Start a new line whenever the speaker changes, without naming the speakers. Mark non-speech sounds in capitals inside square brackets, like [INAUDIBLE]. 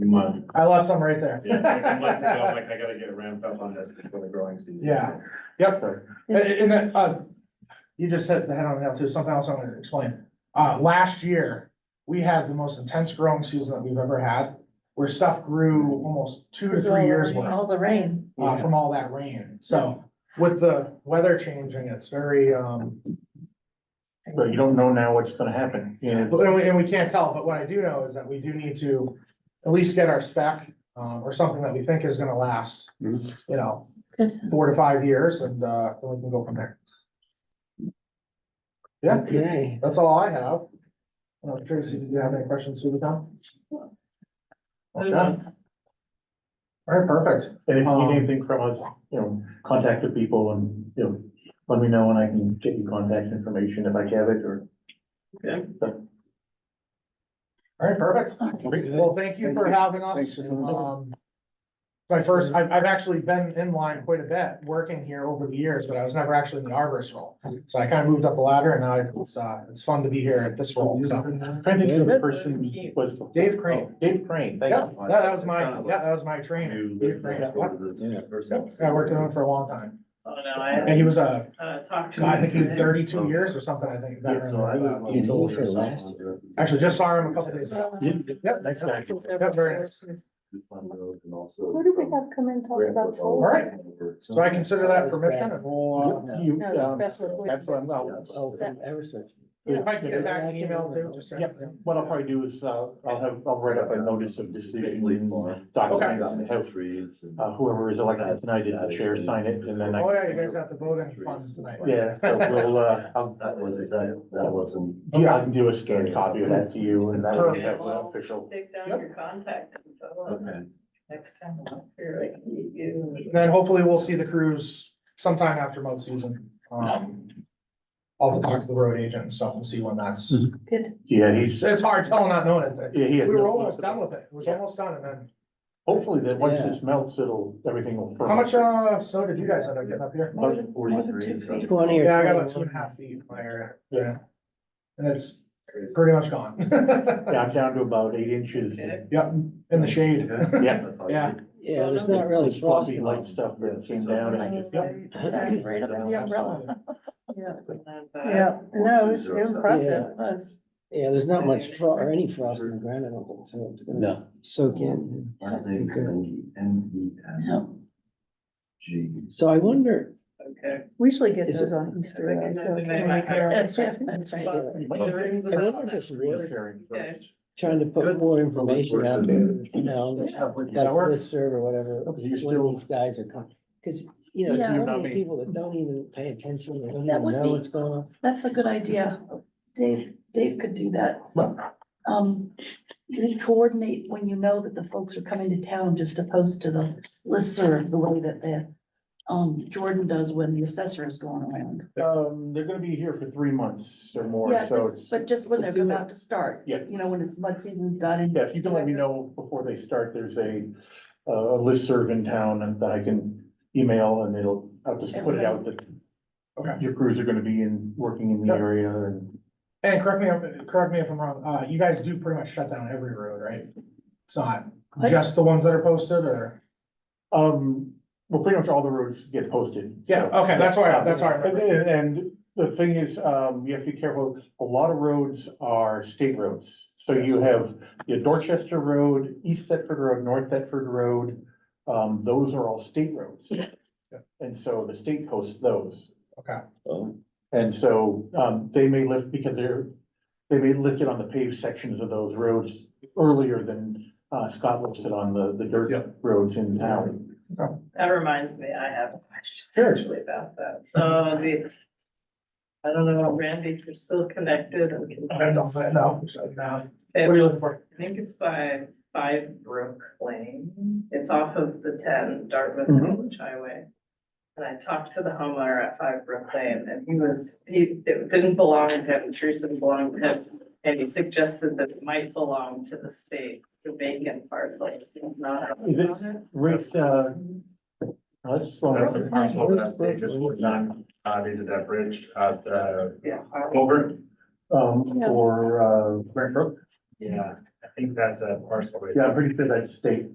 month.
I left some right there.
Yeah, like a month ago, I'm like, I gotta get ramped up on this before the growing season.
Yeah. [LAUGHS] Yep, and, and then, uh, you just hit the head on the nail too, something else I'm gonna explain. Uh, last year, we had the most intense growing season that we've ever had, where stuff grew almost two to three years worth,
All the rain.
uh, from all that rain. So with the weather changing, it's very, um,
But you don't know now what's gonna happen, you know,
But- And we, and we can't tell, but what I do know is that we do need to at least get our spec, um, or something that we think is gonna last, you
Mhm.
know,
Good.
four to five years and, uh, then we can go from there. Yeah,
Okay.
that's all I have. Uh, Tracy, did you have any questions through the town? Okay. All right, perfect.
and if you
Um,
need anything from us, you know, contact the people and, you know, let me know and I can get you contact information if I have it or.
Okay.
All right, perfect. Well, thank you for having
Thanks
us.
for coming over.
Um, My first, I've, I've actually been in line quite a bit, working here over the years, but I was never actually in the arborist role. So I kind of moved up the ladder and now it's, uh, it's fun to be here at this role, so.
I'm Trying to think of the person who was.
Dave Crane.
Oh, Dave Crane, thank
Yeah,
you.
that that was my, yeah, that was my training.
You
Dave
live
Crane,
next
yeah.
door to this
Yeah.
person.
Yep, I worked with him for a long time.
Oh, no,
And
I,
he was a,
uh, talked to.
I think he
him
was thirty-two years or something, I think.
Yeah,
veteran
so I
of,
live
uh,
on-
Yeah, so we're
utilities.
last.
Actually, just saw him a couple days ago. Yep.
Nice guy.
Yep, very nice.
This one road and also
What do we
from
have come and talk
Grand
about
Forks all
solar?
All right.
over.
So I consider that permission and we'll, uh,
You,
No,
um,
that's what-
That's what I'm, well,
Oh, from Eversource.
uh, if I can get back an email too, just. so-
Yep. what I'll probably do is, uh, I'll have, I'll write up a notice of decision, document, and have
trees. and-
uh, whoever is elected tonight as the chair sign it, and then I.
[LAUGHS]
Oh, yeah, you guys got the voting funds tonight.
Yeah, so we'll, uh, I'll,
That was, that, that wasn't.
yeah, I can do a scanned copy of that to you, and that will have the official.
Take down
Yep.
your contact info. and
Okay.
Next time I'm up here, I can meet you.
Then hopefully we'll see the crews sometime after mud season. Um, I'll have to talk to the road agent and stuff and see when that's,
Mm-hmm.
Mhm.
Good.
Yeah,
it's-
he's,
it's hard telling not knowing it.
yeah, he
We
had.
were almost done with it. It was
Yeah.
almost done and then,
Hopefully that once
Yeah.
this melts, it'll, everything will.
how much, uh, snow did you guys end up getting up here?
More than- more than
Forty-three,
two
so-
feet.
Twenty or.
Yeah, I got about two and a half feet in my area. Yeah. And it's pretty much gone. [LAUGHS]
Yeah, I'm down to about eight inches.
Okay.
Yep, in the shade.
Yeah.
Yeah.
Yeah, there's not really
It's fluffy
frosting.
light
on
stuff that came down and I just, yep.
Yeah, Right up in the umbrella. Yeah,
And, uh,
yeah, no, it was impressive, it was.
it. Yeah, there's not much frost or any frost on the ground, I don't think, so it's gonna soak in.
Last name, N- N E N G.
So I wonder,
Okay.
We usually get
Is
those on Easter though, so.
That's
can we get our-
right, that's right.
Yeah.
The rings
uh, I
of-
wonder if it's worth
Sharing first.
trying to put more information out there, you know,
That
like
works.
this serve or whatever,
Oh, but you're
when
still-
these guys are coming. Cause, you know,
Yeah.
there's so
You're not
many
me.
people that don't even pay attention, they don't
That
even
would
know
be-
what's going on.
That's a good idea. Dave, Dave could do that. Um, you can coordinate when you know that the folks are coming to town, just to post to the listserv, the way that the, um, Jordan does when the assessor is going around.
Um, they're gonna be here for three months or more,
Yeah,
so
but-
it's,
but just when they're about to start.
Yeah.
You know, when it's mud season's done and.
yeah, if you can let me know before they start, there's a, uh, a listserv in town and that I can email and it'll, I'll just put it out that
Okay.
your crews are gonna be in, working in the
Yep.
area and
And correct me, if- correct me if I'm wrong, uh, you guys do pretty much shut down every road, right? It's not
What?
just the ones that are posted or?
Um, well, pretty much all the roads get posted. so-
Yeah, okay, that's why I- that's why I
And, and the thing is, um, you have to be careful, a lot of roads are state roads. So you have your Dorchester Road, East Thetford Road, North Thetford Road, um, those are all state roads.
Yeah.
And so the state posts those.
Okay.
And so, um, they may lift because they're, they may lift it on the paved sections of those roads earlier than, uh, Scott lifts it on the, the
Yeah.
dirt roads in town.
That reminds me, I have a question
Sure.
actually about that. So the, I don't know, Randy, if you're still connected and can.
No, no.
Okay,
What are you looking for?
I think it's by Five Brook Lane. It's off of the ten Dartmouth
Mhm.
Village Highway. And I talked to the homeowner at Five Brook Lane and he was, he, it didn't belong to him, Teresa belonged to him. And he suggested that it might belong to the state, it's a vacant parcel, not.
Is it Rick, uh, let's,
That's a parcel that they just would not, uh, they did that bridge, uh, the
Yeah.
over.
um, or, uh, Brent Brook?
Yeah, I think think that's a parcel. right
Yeah, I'm pretty sure that's state.